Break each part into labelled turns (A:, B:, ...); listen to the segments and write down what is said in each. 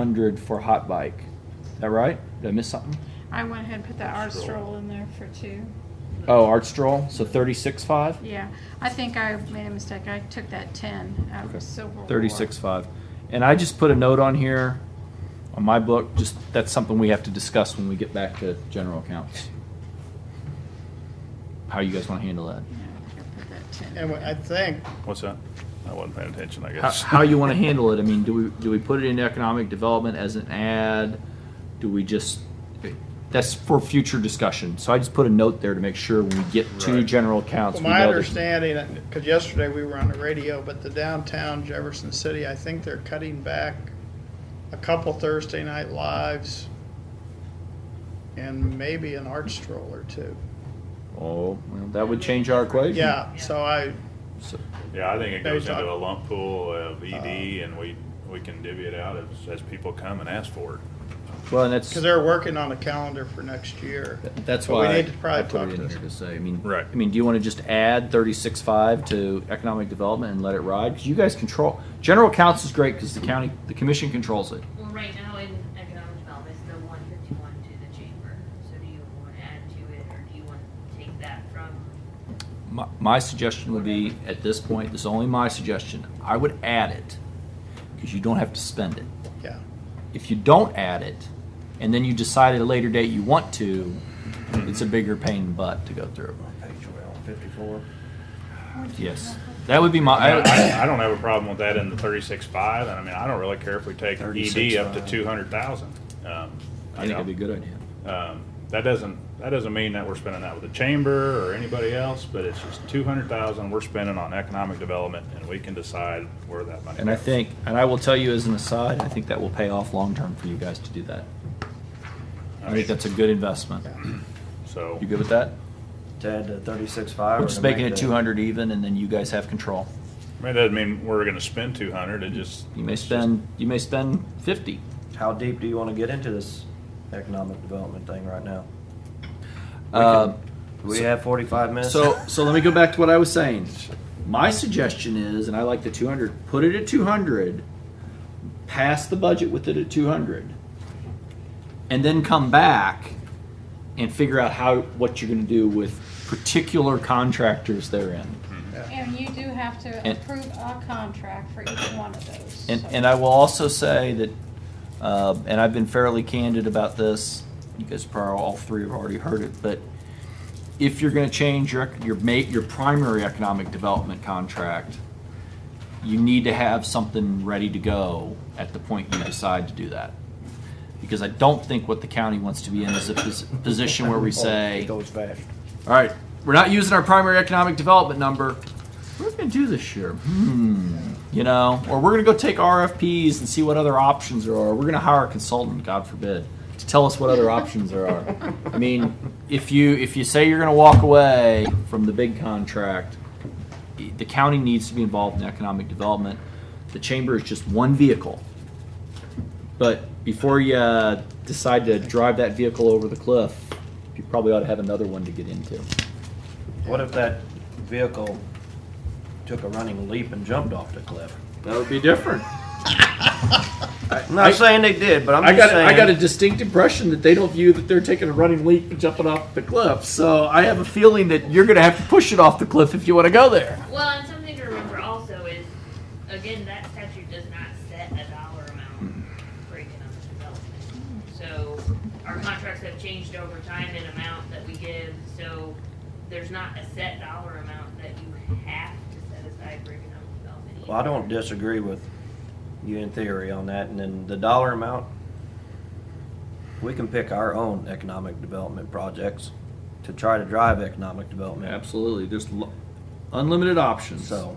A: hundred for hot bike. Is that right? Did I miss something?
B: I went ahead and put that art
C: Stroll.
B: stroll in there for two.
A: Oh, art stroll, so thirty-six five?
B: Yeah, I think I made a mistake. I took that ten out
A: Okay.
B: of Silver. War.
A: Thirty-six five. And I just put a note on here, on my book, just, that's something we have to discuss when we get back to general accounts. How you guys wanna handle that?
B: Yeah, I think I put that 10.
D: And I think,
C: What's that? I wasn't paying attention, I
A: How,
C: guess.
A: how you wanna handle it? I mean, do we, do we put it in economic development as an ad? Do we just, that's for future discussion. So I just put a note there to make sure when we get to
C: Right.
A: general accounts.
D: from
A: we
D: my
A: know that-
D: understanding, because yesterday we were on the radio, but the downtown Jefferson City, I think they're cutting back a couple Thursday night lives and maybe an art stroll or two.
A: Oh, well, that would change our equation.
D: Yeah, so I,
A: So-
C: Yeah, I think it
D: They
C: goes into
D: talk-
C: a lump pool of
A: Uh,
C: ED and we, we can divvy it out as, as people come and ask for it.
A: Well, and that's,
D: because they're working on a calendar for next year.
A: that's
D: But we
A: why I
D: need to probably
A: I put
D: talk
A: it in
D: to this.
A: here to say, I mean.
C: Right.
A: I mean, do you wanna just add thirty-six five to economic development and let it ride? Cause you guys control, general accounts is great, cause the county, the commission controls it.
E: Well, right now in economic development, it's the one fifty-one to the chamber, so do you wanna add to it, or do you wanna take that from?
A: My, my suggestion would be, at this point, this is only my suggestion, I would add it, cause you don't have to spend it.
D: Yeah,
A: If you don't add it, and then you decide at a later date you want to, it's a bigger pain in the butt to go through.
F: Page well, fifty-four.
A: Yes, that would be my,
C: I,
A: I-
C: I- I don't have a problem with that in the thirty-six five, and I mean, I don't really care if we take ED up to
F: 36.5.
C: two hundred thousand. I
A: I think it'd be a good idea.
C: Um, that doesn't, that doesn't mean that we're spending that with the chamber or anybody else, but it's just two hundred thousand we're spending on economic development and we can decide where that money goes.
A: And I think, and I will tell you as an aside, I think that will pay off long term for you guys to do that. I think that's a good investment.
C: So,
A: You good with that?
F: To add to uh, thirty-six five.
A: We're just making it two hundred even, and then you guys have control.
C: I mean, it doesn't mean we're gonna spend two hundred, it just.
A: You may
C: it's just-
A: spend, you may spend fifty.
F: How deep do you wanna get into this economic development thing right now?
A: Uh,
F: Do we have forty-five minutes?
A: So, so let me go back to what I was saying. My suggestion is, and I like the two hundred, put it at two hundred, pass the budget with it at two hundred, and then come back and figure out how, what you're gonna do with particular contractors therein.
B: And you do have to
A: And-
B: approve a contract for each one of those.
A: And,
B: so-
A: and I will also say that, uh, and I've been fairly candid about this, you guys probably all three have already heard it, but if you're gonna change your, ec- your ma, your primary economic development contract, you need to have something ready to go at the point you decide to do that. Because I don't think what the county wants to be in is a pos- position where we say.
F: Oh, fast.
A: All right, we're not using our primary economic development number. What are we gonna do this year? Hmm, you know, or we're gonna go take RFPs and see what other options there are. We're gonna hire a consultant, God forbid, to tell us what other options there are. I mean, if you if you say you're gonna walk away from the big contract, the county needs to be involved in economic development. The chamber is just one vehicle. But before you uh, decide to drive that vehicle over the cliff, you probably ought to have another one to get into.
F: What if that vehicle took a running leap and jumped off the cliff?
A: That would be different.
F: I'm not saying they did, but
A: I
F: I'm just
A: got
F: saying.
A: I got a distinct impression that they don't view that they're taking a running leap and jumping off the cliff. So I have a feeling that you're going to have to push it off the cliff if you want to go there.
E: Well, and something to remember also is, again, that statute does not set a dollar amount for economic development. So our contracts have changed over time in amount that we give, so there's not a set dollar amount that you have to set aside for economic development.
F: Well, I don't disagree with you in theory on that, and then the dollar amount, we can pick our own economic development projects to try to drive economic development.
A: Absolutely, there's lo- unlimited options.
F: So.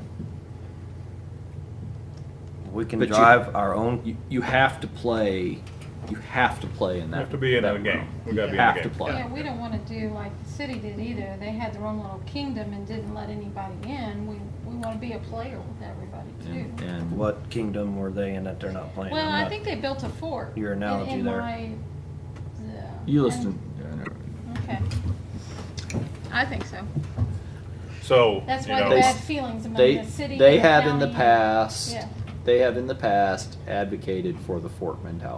F: We can
A: But you-
F: drive our own,
A: you, you have to play. You have to play in
C: We
A: that.
C: have to be in
A: that
C: the game.
A: realm.
C: We gotta be in
A: You
C: the
A: have
C: game.
A: to play.
B: Yeah, we don't wanna do like the city did either. They had their own little kingdom and didn't let anybody in. We, we wanna be a player with everybody
A: And,
B: too.
A: and
F: what kingdom were they in that they're not playing?
B: Well,
F: I'm
B: I
F: not-
B: think they built a fort.
F: Your
B: in-
F: analogy
B: in
F: there.
B: my- yeah.
A: you
B: And-
A: listen. Yeah, I know.
B: Okay. I think so.
C: So,
B: That's
C: you
B: why
C: know,
B: the
A: they-
B: bad feelings among
A: they
B: the city.
A: they
B: and the
A: have in the
B: county.
A: past
B: Yeah.
A: they have in the past advocated for the fork mentality.